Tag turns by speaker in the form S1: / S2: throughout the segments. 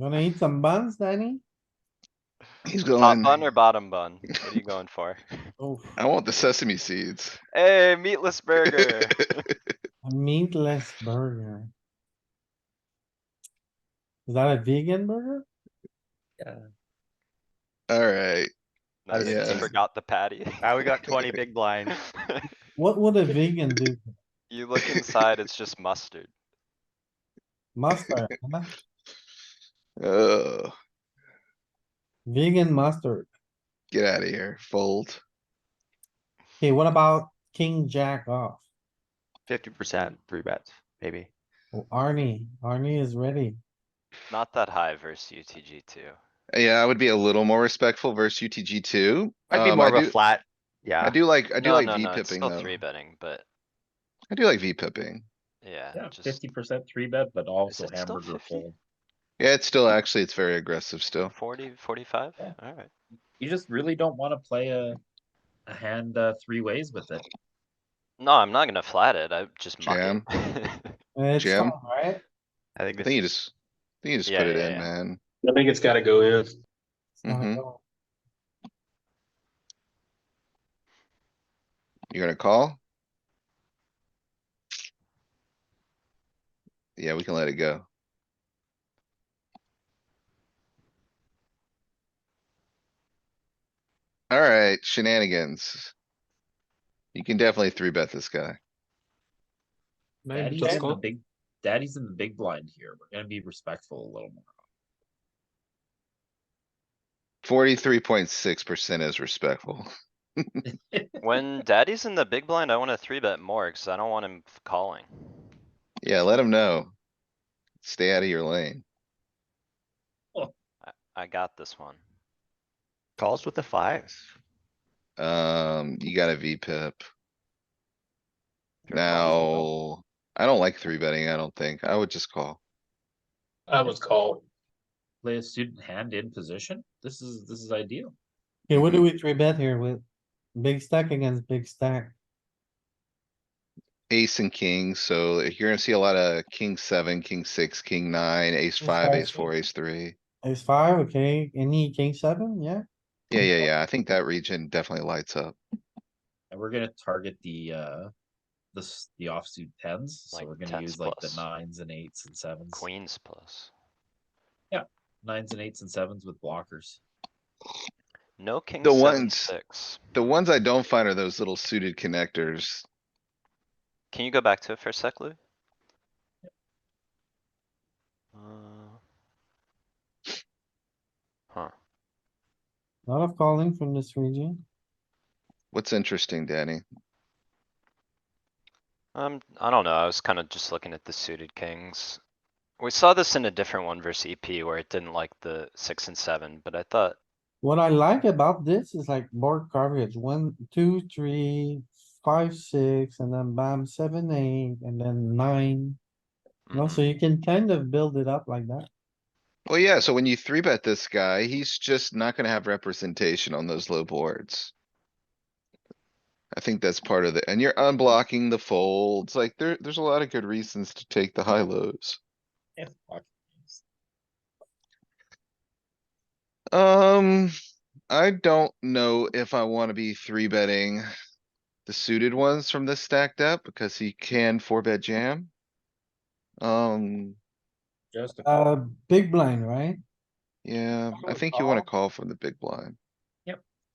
S1: Wanna eat some buns, Danny?
S2: He's
S3: Top
S2: going,
S3: bun or bottom bun? What are you going for?
S1: Oh,
S2: I want the sesame seeds.
S3: Hey, meatless burger.
S1: a meatless burger. Is that a vegan burger?
S2: Alright,
S3: Nice,
S2: Yeah.
S3: forgot the patty.
S4: Now we got twenty big blinds.
S1: What would a vegan do?
S3: You look inside, it's just mustard.
S1: Mustard, huh?
S2: oh,
S1: vegan mustard.
S2: get out of here, fold.
S1: Okay, what about king jack off?
S4: Fifty percent, three bets, maybe.
S1: Oh, Arnie, Arnie is ready.
S3: Not that high versus UTG two.
S2: Yeah, I would be a little more respectful versus UTG two.
S4: I'd be
S2: Um,
S4: more
S2: I
S4: of a
S2: do-
S4: flat,
S2: I
S4: yeah,
S2: do like, I do
S3: No,
S2: like
S3: no,
S2: V
S3: no, it's
S2: pipping
S3: still
S2: though.
S3: Three betting, but
S2: I do like V pipping.
S3: yeah,
S5: Yeah,
S3: just
S5: fifty percent three bet, but also
S3: it still
S5: hamburger
S3: 50?
S5: fold.
S2: Yeah, it's
S3: Mm.
S2: still, actually, it's very aggressive still.
S3: forty, forty-five?
S5: Yeah.
S3: Alright.
S5: You just really don't wanna play a, a hand, uh, three ways with it.
S3: No, I'm not gonna flat it. I just muck
S2: Jam.
S3: it.
S1: It's
S2: Jam.
S1: fine, right?
S4: I think
S2: I
S4: this
S2: think you
S4: is,
S2: just, I think you just
S3: Yeah,
S2: put it
S3: yeah,
S2: in,
S3: yeah.
S2: man.
S6: I think it's gotta go in.
S1: It's not
S2: Mhm.
S1: going.
S2: You're gonna call? Yeah, we can let it go. Alright, shenanigans. You can definitely three bet this guy.
S5: Daddy's in the big, daddy's in the big blind here. We're gonna be respectful a little more.
S2: Forty-three point six percent is respectful.
S3: When daddy's in the big blind, I wanna three bet more, cause I don't want him f- calling.
S2: Yeah, let him know. Stay out of your lane.
S3: I got this one.
S4: calls with the fives.
S2: Um, you got a V pip.
S4: Pure calls with
S2: Now, I don't like three betting, I don't think. I would just call.
S6: I was called.
S5: Play a student hand in position. This is, this is ideal.
S1: Okay, what do we three bet here with? Big stack against big stack.
S2: ace and king, so you're gonna see a lot of king seven, king six, king nine, ace
S1: Ace
S2: five,
S1: five,
S2: ace four, ace three.
S1: Ace five, okay, any king seven, yeah?
S2: Yeah, yeah, yeah. I think that region definitely lights up.
S5: And we're gonna target the, uh, the, s- the offsuit tens. So
S3: Like
S5: we're gonna
S3: 10s
S5: use like the
S3: plus.
S5: nines and eights and sevens.
S3: Queens plus.
S5: Nines and eights and sevens with blockers.
S3: No king
S2: The
S3: seven
S2: ones-
S3: six.
S2: The ones I don't find are those little suited connectors.
S3: Can you go back to it for a sec, Lou? Uh, Huh,
S1: Lot of calling from this region.
S2: What's interesting, Danny?
S3: um, I don't know, I was kinda just looking at the suited kings. We saw this in a different one versus EP where it didn't like the six and seven, but I thought,
S1: What I like about this is like board coverage, one, two, three, five, six, and then bam, seven, eight, and then nine. You know, so
S3: mm,
S2: Mm-hmm.
S1: you can kind of build it up like that.
S2: Well, yeah, so when you three bet this guy, he's just not gonna have representation on those low boards. I think that's part of the, and you're unblocking the folds, like there, there's a lot of good reasons to take the high lows.
S5: Yeah. block.
S2: Um, I don't know if I wanna be three betting the suited ones from this stacked up because he can four bet jam. Um,
S5: Just a call.
S1: Uh, big blind, right?
S2: yeah, I
S5: I would
S2: think you wanna
S5: call.
S2: call from the big blind.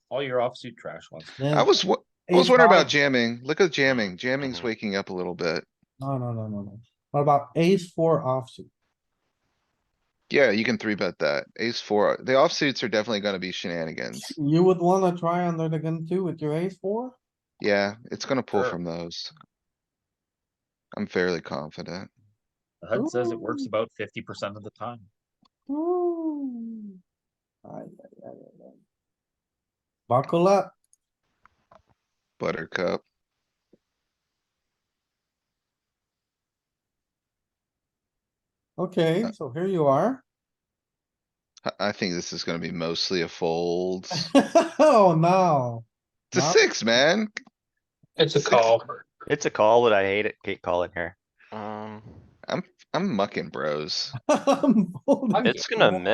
S5: all your offsuit trash ones.
S2: I was, wa- I was
S1: Ace
S2: wondering
S1: five-
S2: about jamming. Look at
S5: Mm-hmm.
S2: jamming. Jamming's
S3: Mhm.
S2: waking up a little bit.
S1: No, no, no, no, no. What about ace four offsuit?
S2: Yeah, you can three bet that. Ace four, the offsuits are definitely gonna be shenanigans.
S1: You would wanna try under the gun too with your ace four?
S2: Yeah, it's gonna pull
S5: Sure.
S2: from those. I'm fairly confident.
S5: The HUD says it works
S1: Ooh.
S5: about fifty percent of the time.
S1: Ooh. Ay, ay, ay, ay, ay. Buckle up.
S2: Buttercup. Uh,
S1: Okay, so here you are.
S2: I, I think this is gonna be mostly a fold.
S1: Oh, no.
S2: It's a
S1: Not-
S2: six, man.
S6: It's a
S2: Six.
S6: call.
S4: It's a call, but I hate it, Kate calling here.
S3: um,
S7: I'm mucking bros.
S2: I'm folding.
S1: It's gonna mix.